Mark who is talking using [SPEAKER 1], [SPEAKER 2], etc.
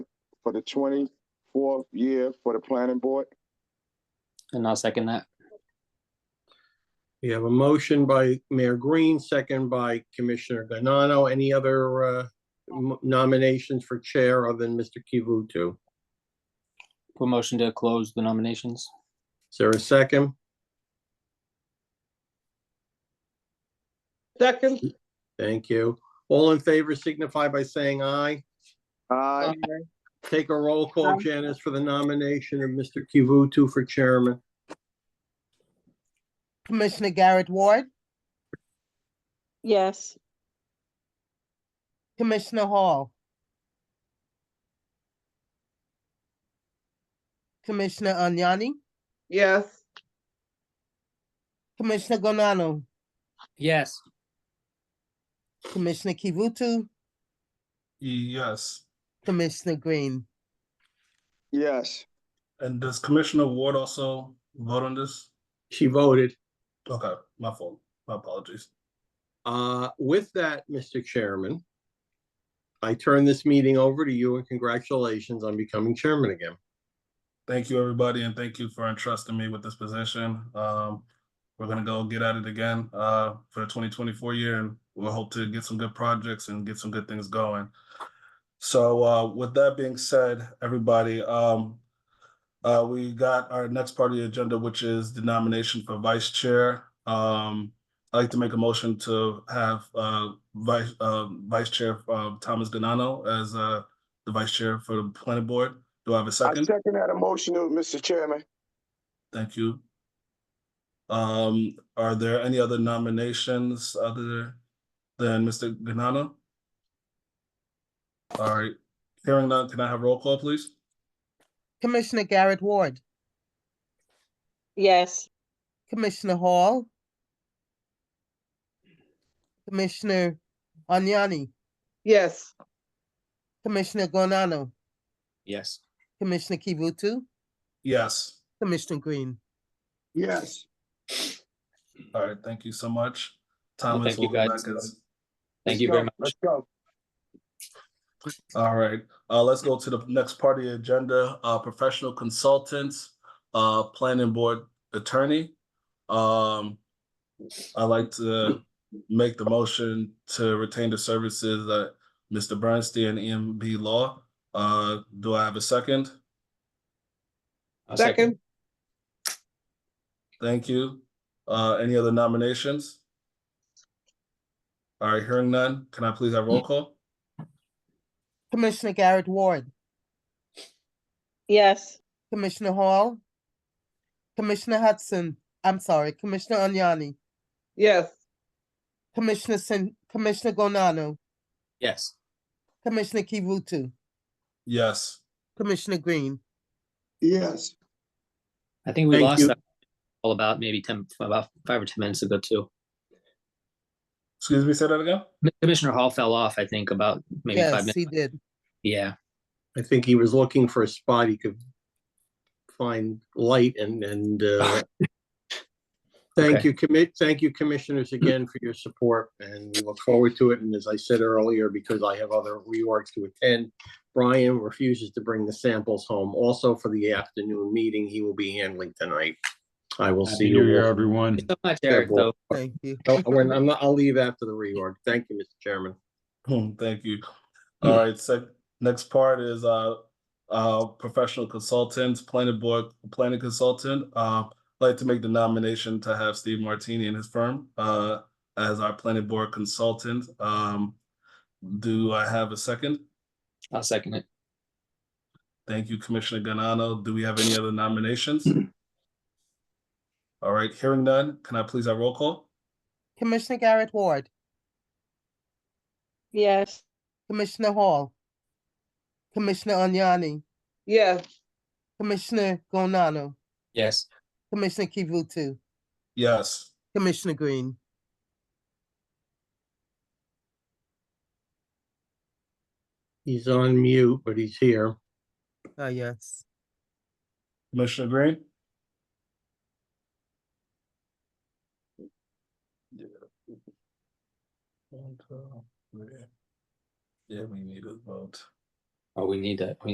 [SPEAKER 1] for the twenty-fourth year for the planning board.
[SPEAKER 2] And I'll second that.
[SPEAKER 3] We have a motion by Mayor Green, second by Commissioner Ganano. Any other uh, m- nominations for chair other than Mr. Kivutu?
[SPEAKER 2] Put motion to close the nominations.
[SPEAKER 3] Is there a second?
[SPEAKER 4] Second,
[SPEAKER 3] Thank you. All in favor signify by saying aye.
[SPEAKER 1] Aye.
[SPEAKER 3] Take a roll call, Janice, for the nomination of Mr. Kivutu for chairman.
[SPEAKER 5] Commissioner Garrett Ward,
[SPEAKER 6] Yes,
[SPEAKER 5] Commissioner Hall. Commissioner Agnani,
[SPEAKER 4] yes,
[SPEAKER 5] Commissioner Gonano,
[SPEAKER 2] Yes.
[SPEAKER 5] Commissioner Kivutu,
[SPEAKER 7] Yes,
[SPEAKER 5] Commissioner Green.
[SPEAKER 1] Yes,
[SPEAKER 7] and does Commissioner Ward also vote on this?
[SPEAKER 3] She voted.
[SPEAKER 7] Okay, my fault, my apologies.
[SPEAKER 3] Uh, With that, Mr. Chairman, I turn this meeting over to you and congratulations on becoming chairman again.
[SPEAKER 7] Thank you, everybody, and thank you for entrusting me with this position. Um, we're gonna go get at it again, uh, for the twenty twenty-four year, and we'll hope to get some good projects and get some good things going. So, uh, with that being said, everybody, um, uh, we got our next part of the agenda, which is the nomination for vice chair. Um, I'd like to make a motion to have, uh, vice, uh, vice chair, uh, Thomas Ganano as, uh, the vice chair for the planning board. Do I have a
[SPEAKER 1] I
[SPEAKER 7] second?
[SPEAKER 1] second that emotion, Mr. Chairman.
[SPEAKER 7] Thank you. Um, are there any other nominations other than Mr. Ganano? All right, hearing none, can I have roll call, please?
[SPEAKER 5] Commissioner Garrett Ward,
[SPEAKER 6] yes,
[SPEAKER 5] Commissioner Hall. Commissioner Agnani,
[SPEAKER 4] yes,
[SPEAKER 5] Commissioner Gonano,
[SPEAKER 2] Yes.
[SPEAKER 5] Commissioner Kivutu,
[SPEAKER 7] Yes,
[SPEAKER 5] Commissioner Green.
[SPEAKER 1] Yes,
[SPEAKER 7] all right, thank you so much.
[SPEAKER 2] Well,
[SPEAKER 7] Thomas
[SPEAKER 2] thank you,
[SPEAKER 7] will be
[SPEAKER 2] guys.
[SPEAKER 7] back as-
[SPEAKER 2] Thank you very much.
[SPEAKER 1] let's go.
[SPEAKER 7] All right, uh, let's go to the next part of the agenda, uh, professional consultants, uh, planning board attorney. Um, I'd like to make the motion to retain the services that Mr. Bernstein, EMB Law. Uh, do I have a second?
[SPEAKER 2] I'll
[SPEAKER 4] second,
[SPEAKER 7] Thank you. Uh, any other nominations? All right, hearing none, can I please have roll call?
[SPEAKER 5] Commissioner Garrett Ward,
[SPEAKER 6] yes,
[SPEAKER 5] Commissioner Hall. Commissioner Hudson, I'm sorry, Commissioner Agnani,
[SPEAKER 4] yes,
[SPEAKER 5] Commissioner Sin, Commissioner Gonano,
[SPEAKER 2] Yes.
[SPEAKER 5] Commissioner Kivutu,
[SPEAKER 7] Yes,
[SPEAKER 5] Commissioner Green.
[SPEAKER 1] Yes,
[SPEAKER 2] I think we
[SPEAKER 3] Thank
[SPEAKER 2] lost
[SPEAKER 3] you.
[SPEAKER 2] that all about maybe ten, about five or ten minutes ago too.
[SPEAKER 7] excuse me, say that again?
[SPEAKER 2] Commissioner Hall fell off, I think, about maybe five minutes.
[SPEAKER 5] Yes, he did.
[SPEAKER 2] Yeah.
[SPEAKER 3] I think he was looking for a spot he could find light and, and, uh, thank
[SPEAKER 2] Okay.
[SPEAKER 3] you, commit, thank you commissioners again for your support and we look forward to it. And as I said earlier, because I have other reorgs to attend, Brian refuses to bring the samples home. Also for the afternoon meeting, he will be handling tonight. I will see
[SPEAKER 8] Happy
[SPEAKER 3] you.
[SPEAKER 8] New Year,
[SPEAKER 3] all.
[SPEAKER 8] everyone.
[SPEAKER 2] Thank you So much, Eric,
[SPEAKER 3] well,
[SPEAKER 2] though.
[SPEAKER 5] Thank you.
[SPEAKER 3] Oh, when- I'm not, I'll leave after the reorg. Thank you, Mr. Chairman.
[SPEAKER 7] Hmm, thank you. All right, so next part is uh uh professional consultants, planning board, planning consultant. Uh I'd like to make the nomination to have Steve Martini and his firm uh as our planning board consultant. Um do I have a second?
[SPEAKER 2] I'll second it.
[SPEAKER 7] Thank you, Commissioner Ganano. Do we have any other nominations? All right, hearing none, can I please have roll call?
[SPEAKER 5] Commissioner Garrett Ward,
[SPEAKER 6] yes,
[SPEAKER 5] Commissioner Hall. Commissioner Agnani,
[SPEAKER 4] yes,
[SPEAKER 5] Commissioner Gonano,
[SPEAKER 2] Yes.
[SPEAKER 5] Commissioner Kivutu,
[SPEAKER 7] Yes.
[SPEAKER 5] Commissioner Green.
[SPEAKER 3] He's on mute, but he's here.
[SPEAKER 5] Ah, yes.
[SPEAKER 7] Commissioner Green? Yeah, we need a vote.
[SPEAKER 2] Oh, we need that. We